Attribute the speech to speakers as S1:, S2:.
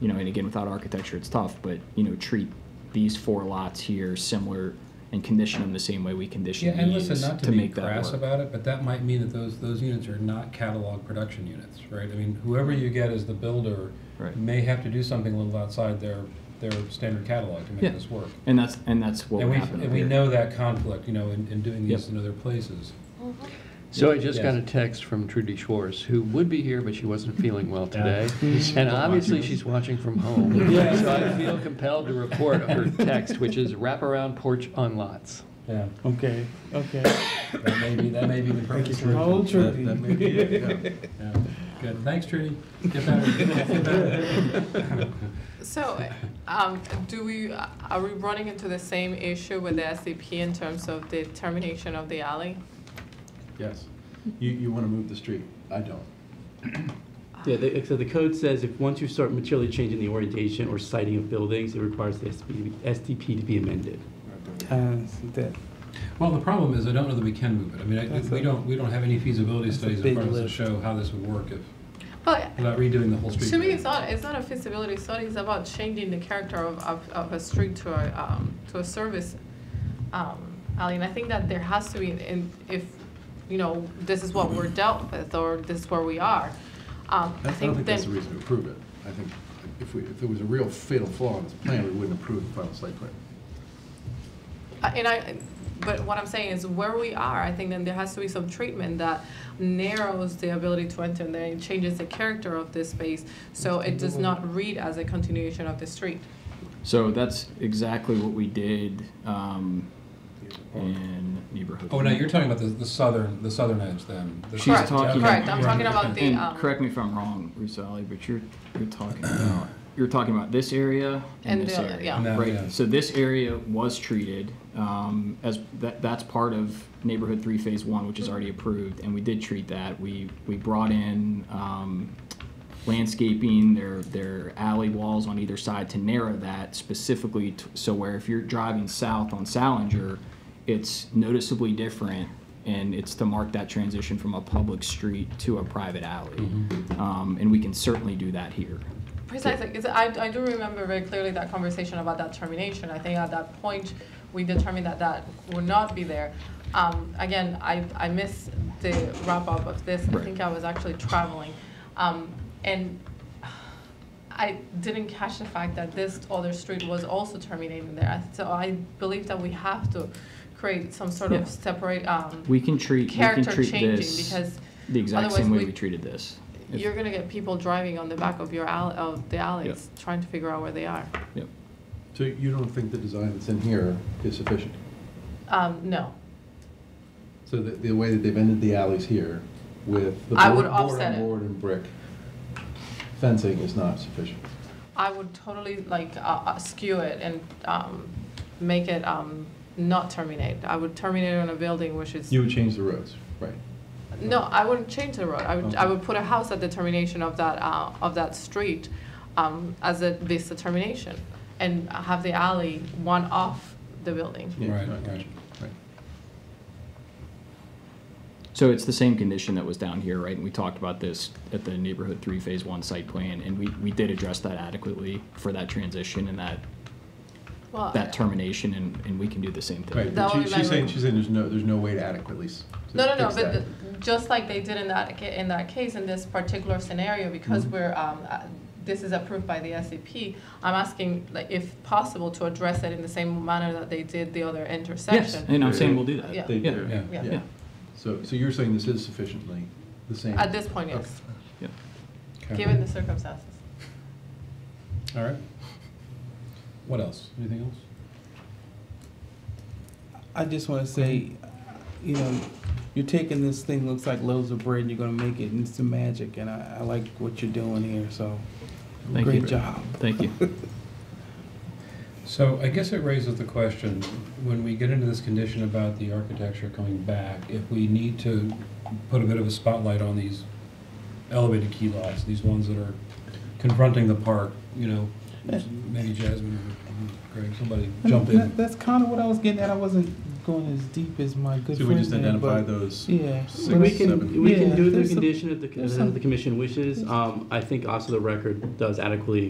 S1: you know, and again, without architecture, it's tough, but, you know, treat these four lots here similar and condition them the same way we
S2: Yeah,
S1: condition
S2: and
S1: these
S2: listen, not to
S1: to
S2: be
S1: make that
S2: crass
S1: work.
S2: about it, but that might mean that those, those units are not catalog production units, right? I mean, whoever you get as the builder
S1: Right.
S2: may have to do something a little outside their, their standard catalog to
S1: Yeah.
S2: make this work.
S1: And that's, and that's what
S2: And
S1: would
S2: we,
S1: happen up
S2: and we
S1: here.
S2: know that conflict, you know, in, in doing these
S1: Yep.
S2: in other places.
S3: So I just got a
S2: Yes.
S3: text from Trudy Schwartz, who would be here, but she wasn't feeling well
S2: Yeah.
S3: today. And obviously, she's watching from home.
S2: Yeah.
S3: So I feel compelled to report her text, which is wraparound porch on lots.
S2: Yeah,
S4: Okay, okay.
S2: that may be, that may be the purpose.
S4: How old
S5: That- that may be it, yeah.
S2: Yeah. Good, thanks, Trudy. Get better. Get better.
S6: So, um, do we, are we running into the same issue with the SCP in terms of the termination of the alley?
S5: Yes. You, you want to move the street. I don't.
S4: Yeah, the, so the code says if, once you start materially changing the orientation or sighting of buildings, it requires the STP, STP to be amended.
S7: And that,
S2: Well, the problem is, I don't know that we can move it. I mean, I-
S7: That's
S2: we
S7: a-
S2: don't, we don't have any feasibility
S7: that's a
S2: studies in
S7: big
S2: front of us to
S7: lift.
S2: show how this would work if,
S6: But
S2: without redoing the whole street.
S6: to me,
S2: plan.
S6: it's not, it's not a feasibility study, it's about changing the character of, of, of a street to a, um, to a service um, alley. And I think that there has to be, and if, you know, this is what we're dealt with, or this is where we are. Um,
S5: I
S6: I
S5: I don't
S6: think
S5: think that's the
S6: then,
S5: reason to approve it. I think if we, if there was a real fatal flaw in this plan, we wouldn't approve the final site plan.
S6: Uh, And I, but what I'm saying is where we are, I think then there has to be some treatment that narrows the ability to enter and then it changes the character of this space. So it does not read as a continuation of the street.
S1: So that's exactly what we did, um, in neighborhood.
S2: Oh, no, you're talking about the, the southern, the southern edge then. The-
S1: She's
S6: Correct,
S1: talking.
S6: Correct, I'm talking about the,
S1: And
S6: um,
S1: correct me if I'm wrong, Rusali, but you're, you're talking about, you're talking about this area and
S6: And
S1: this
S6: the-
S1: area.
S6: yeah.
S2: No, yeah.
S1: Right, so this area was treated, um, as, that, that's part of neighborhood three, phase one, which is already approved, and we did treat that. We, we brought in, um, landscaping, their, their alley walls on either side to narrow that specifically t- so where if you're driving south on Salinger, it's noticeably different and it's to mark that transition from a public street to a private alley. Um, and we can certainly do that here.
S6: Precisely, 'cause I, I do remember very clearly that conversation about that termination. I think at that point, we determined that that would not be there. Um, again, I, I missed the wrap up of this. I
S1: Right.
S6: think I was actually traveling. Um, and I didn't catch the fact that this other street was also terminating there. So I believe that we have to create some sort
S1: Yeah.
S6: of separate, um,
S1: We can treat, we can
S6: Character
S1: treat
S6: changing,
S1: this
S6: because
S1: the exact same
S6: otherwise
S1: way
S6: we-
S1: we treated this. If-
S6: you're gonna get people driving on the back of your alley, of the alleys, trying to figure out where they are.
S1: Yep.
S5: So you don't think the design that's in here is sufficient?
S6: Um, no,
S5: So the, the way that they've ended the alleys here with the
S6: I
S5: board,
S6: would
S5: board
S6: offset
S5: and
S6: it.
S5: board and brick fencing is not sufficient.
S6: I would totally like uh, uh, skew it and um, make it um, not terminate. I would terminate it on a building which is
S5: You would change the roads, right?
S6: no. I wouldn't change the road. I would I would put a house at the termination of that uh, of that street um, as a this determination, and have the alley one off the building.
S5: Yeah,
S2: Right,
S5: I got
S2: right.
S5: you, right.
S1: So it's the same condition that was down here, right? And we talked about this at the neighborhood three, phase one site plan, and we, we did address that adequately for that transition and that,
S6: Well,
S1: that termination, and, and we can do the same thing.
S5: Right,
S6: That
S5: but she-
S6: would be my
S5: she's saying,
S6: re-
S5: she's saying there's no, there's no way to adequately s- to
S6: No, no, no,
S5: fix
S6: but
S5: that.
S6: the- just like they did in that, ca- in that case, in this particular scenario, because
S5: Mm-hmm.
S6: we're, um, uh, this is approved by the SCP, I'm asking, like, if possible, to address it in the same manner that they did the other
S1: Yes,
S6: intersection.
S1: and I'm saying we'll do that.
S6: Yeah.
S5: They-
S1: Yeah.
S2: Yeah.
S6: Yeah.
S1: Yeah.
S5: So, so you're saying this is sufficiently the same?
S6: At this point, yes,
S1: Yeah.
S2: Okay.
S6: given the circumstances.
S2: All right. What else? Anything else?
S7: I just want to say, you know, you're taking this thing looks like loaves of bread and you're going to make it into magic, and I, I like what you're doing here. So,
S1: Thank you.
S7: great job.
S1: Thank you.
S2: So I guess it raises the question, when we get into this condition about the architecture coming back, if we need to put a bit of a spotlight on these elevated key lots, these ones that are confronting the park, you know, maybe Jasmine or Greg, somebody
S7: Um,
S2: jump in.
S7: That- that's kind of what I was getting at. I wasn't going as deep as my good
S5: So we
S7: friend.
S5: just
S7: there,
S5: identify
S7: but-
S5: those
S7: Yeah.
S5: six,
S7: But
S4: We
S5: seven.
S4: can, we
S7: Yeah,
S4: can do the
S7: there's some-
S4: condition if the,
S7: there's some-
S4: if the commission wishes. Um, I think also the record does adequately